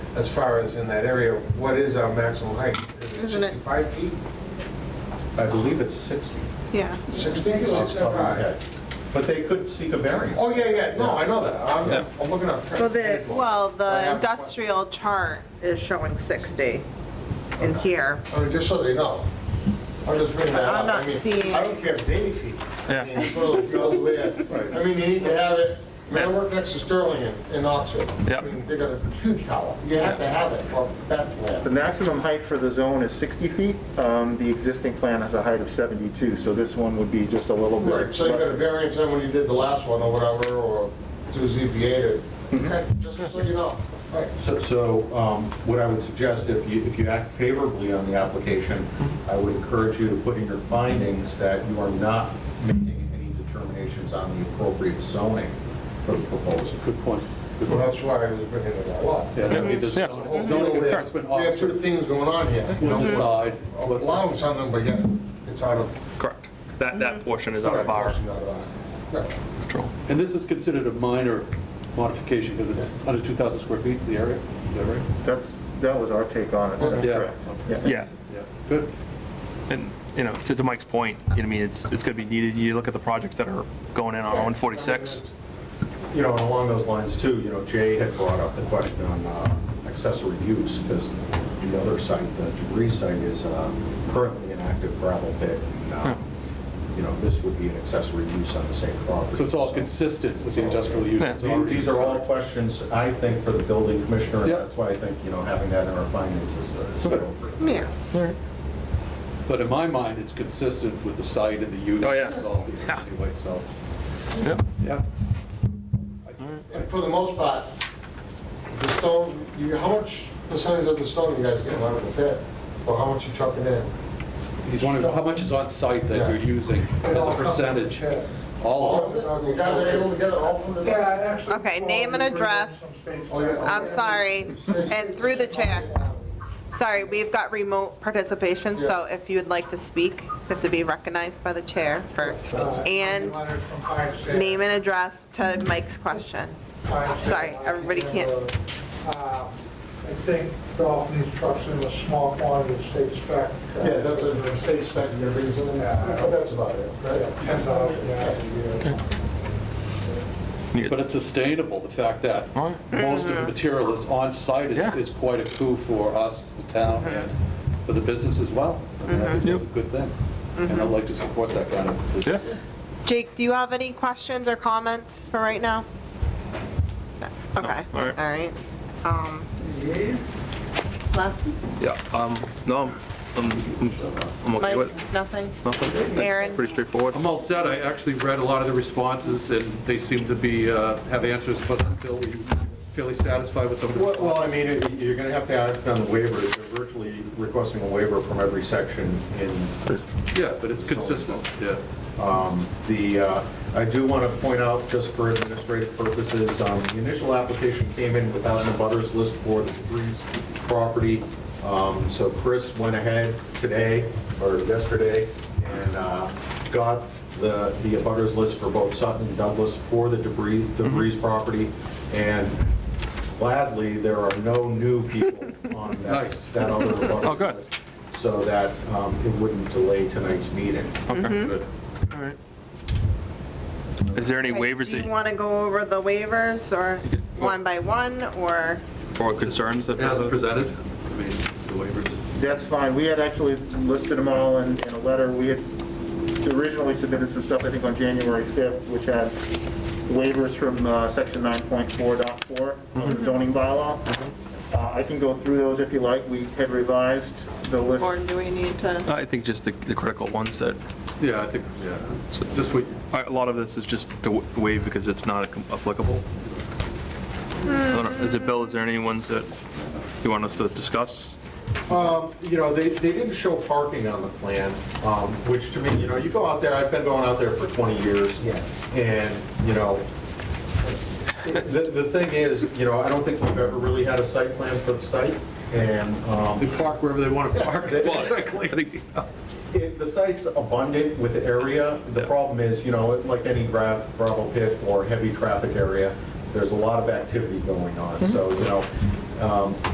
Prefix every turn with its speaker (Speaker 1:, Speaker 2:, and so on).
Speaker 1: as far as in that area, what is our maximum height? Is it
Speaker 2: Isn't it-
Speaker 1: 65 feet?
Speaker 3: I believe it's 60.
Speaker 2: Yeah.
Speaker 1: 60,
Speaker 3: off the top of
Speaker 1: 65?
Speaker 3: my head. But they could seek a variance.
Speaker 1: Oh, yeah, yeah, no, I know that. I'm- I'm looking up.
Speaker 2: Well, the, well,
Speaker 1: I have
Speaker 2: the
Speaker 1: a-
Speaker 2: industrial chart is showing 60 in here.
Speaker 1: I mean, just so they know. I'm just bringing that
Speaker 2: But
Speaker 1: up.
Speaker 2: I'm not
Speaker 1: I mean,
Speaker 2: seeing-
Speaker 1: I don't care if it's 80 feet.
Speaker 4: Yeah.
Speaker 1: I mean, it's one of those deals where, I mean, you need to have it, I mean, I work next to Sterling in- in Oxford.
Speaker 4: Yeah.
Speaker 1: I mean, They got a huge tower. You have to have it for that
Speaker 3: The
Speaker 1: plan.
Speaker 3: maximum height for the zone is 60 feet. Um, The existing plan has a height of 72, so this one would be just a little bit.
Speaker 1: Right, so you got a
Speaker 3: less.
Speaker 1: variance on when you did the last one or whatever, or to ZBA to,
Speaker 4: Mm-hmm.
Speaker 1: okay, just so you know. Right.
Speaker 5: So, so um, what I would suggest, if you, if you act favorably on the application, I would encourage you to put in your findings that you are not making any determinations on the appropriate zoning for the proposal.
Speaker 6: Good point. Good
Speaker 1: Well,
Speaker 6: point.
Speaker 1: that's why I was bringing it all up.
Speaker 6: Yeah, that'd be the
Speaker 4: Yeah.
Speaker 6: zoning
Speaker 1: Mhm.
Speaker 6: zoning enforcement
Speaker 1: We have two
Speaker 6: officer
Speaker 1: things going on here.
Speaker 6: will decide what
Speaker 1: Allowing something, but yet it's out of.
Speaker 4: Correct. That,
Speaker 2: Mm-hmm.
Speaker 4: that portion is out of our
Speaker 1: Out of our- Right.
Speaker 4: control.
Speaker 6: And this is considered a minor modification because it's under 2,000 square feet, the area, is that right?
Speaker 3: That's, that was our take on it. That's
Speaker 6: Yeah.
Speaker 3: correct.
Speaker 4: Yeah,
Speaker 6: Yeah, good.
Speaker 4: and, you know, to to Mike's point, you know, what I mean, it's, it's gonna be needed. You look at the projects that are going in on 146.
Speaker 5: You know, and along those lines too, you know, Jay had brought up the question on uh, accessory use, because the other site, the debris site is uh, currently an active gravel pit. and, uh, You know, this would be an accessory use on the same property.
Speaker 6: So it's all consistent with the industrial use. that's
Speaker 5: These-
Speaker 6: already-
Speaker 5: These are all questions, I think, for the building commissioner, and
Speaker 6: Yep.
Speaker 5: that's why I think, you know, having that in our findings is uh, is
Speaker 6: Okay.
Speaker 5: appropriate.
Speaker 2: Yeah.
Speaker 6: But in my mind, it's consistent with the site and the use.
Speaker 4: Oh, yeah.
Speaker 6: It's all here
Speaker 4: Yeah.
Speaker 6: Anyway, so,
Speaker 4: Yep.
Speaker 6: yeah.
Speaker 1: And for the most part, the stone, you, how much percentage of the stone you guys getting out of the pit? Or how much you chucking in?
Speaker 6: He's wondering how much is on site that
Speaker 1: Yeah.
Speaker 6: you're using as a percentage?
Speaker 1: Yeah.
Speaker 6: All of it.
Speaker 1: You guys are able to get it all from the. Oh, Yeah, actually.
Speaker 2: Okay, name and address. I'm sorry, and through the chair. Sorry, we've got remote participation, so if you would like to speak, you have to be recognized by the chair first. And name and address to Mike's question. Sorry, everybody can't-
Speaker 7: Uh, I think Dolphin needs trucks in a small quantity of state spec. uh,
Speaker 1: Yeah, that's a state spec, you brings in, but that's about it, right?
Speaker 7: 10,000 gallons a year.
Speaker 6: But it's sustainable, the fact that
Speaker 4: Right.
Speaker 6: most of the material that's on site
Speaker 4: Yeah.
Speaker 6: is, is quite a coup for us, the town, and for the business as well. I mean, I think
Speaker 4: Mm-hmm.
Speaker 6: that's a good thing, and I'd like to support that kind of business.
Speaker 4: Yeah.
Speaker 2: Jake, do you have any questions or comments for right now? No. Okay, all
Speaker 4: all right.
Speaker 2: right. Um, Les,
Speaker 4: Yeah, um, no, I'm, I'm- I'm okay with it.
Speaker 2: Mike, nothing?
Speaker 4: Nothing.
Speaker 2: Aaron?
Speaker 4: Pretty straightforward.
Speaker 6: I'm all set, I actually read a lot of the responses, and they seem to be, uh, have answers, but I'm fairly, fairly satisfied with some of the
Speaker 5: Well, well, I mean, it- you're going to have to act on the waivers, they're virtually requesting a waiver from every section in
Speaker 6: Yeah, but it's consistent, yeah.
Speaker 5: The, uh, I do want to point out, just for administrative purposes, um, the initial application came in without an abutters list for the Debris property. Um, So Chris went ahead today, or yesterday, and uh, got the the abutters list for both Sutton and Douglas for the Debris,
Speaker 4: Mm-hmm.
Speaker 5: Debris property. And gladly, there are no new people on that,
Speaker 6: Nice.
Speaker 5: that other
Speaker 4: Oh, good.
Speaker 5: abutters list. So that um, it wouldn't delay tonight's meeting.
Speaker 4: Okay,
Speaker 6: Good.
Speaker 4: all right. Is there any waivers
Speaker 2: Do
Speaker 4: that,
Speaker 2: you
Speaker 4: you-
Speaker 2: want to go over the waivers or one by one or?
Speaker 4: or concerns that?
Speaker 6: As presented, I mean, the waivers.
Speaker 3: That's fine. We had actually listed them all in, in a letter. We had originally submitted some stuff, I think, on January 5th, which had waivers from uh, section 9.4.4 of
Speaker 1: Mhm.
Speaker 3: the zoning bylaw. Uh, I can go through those if you like. We had revised the list.
Speaker 2: Or do we need to?
Speaker 4: I think just the, the critical ones that,
Speaker 6: Yeah, I think, yeah, just what,
Speaker 4: a lot of this is just to wa- waive because it's not applicable. I don't know. Is it, Bill, is there any ones that you want us to discuss?
Speaker 5: Um, You know, they, they didn't show parking on the plan, um, which to me, you know, you go out there, I've been going out there for 20 years.
Speaker 1: Yeah.
Speaker 5: And, you know, the, the thing is, you know, I don't think we've ever really had a site plan for the site. And
Speaker 6: they
Speaker 5: um,
Speaker 6: park wherever they want to park.
Speaker 5: Yeah.
Speaker 6: Exactly.
Speaker 4: I think-
Speaker 5: it- the site's abundant with the area. The
Speaker 4: Yeah.
Speaker 5: problem is, you know, like any gra- gravel pit or heavy traffic area, there's a lot of activity going on. So, you know, um,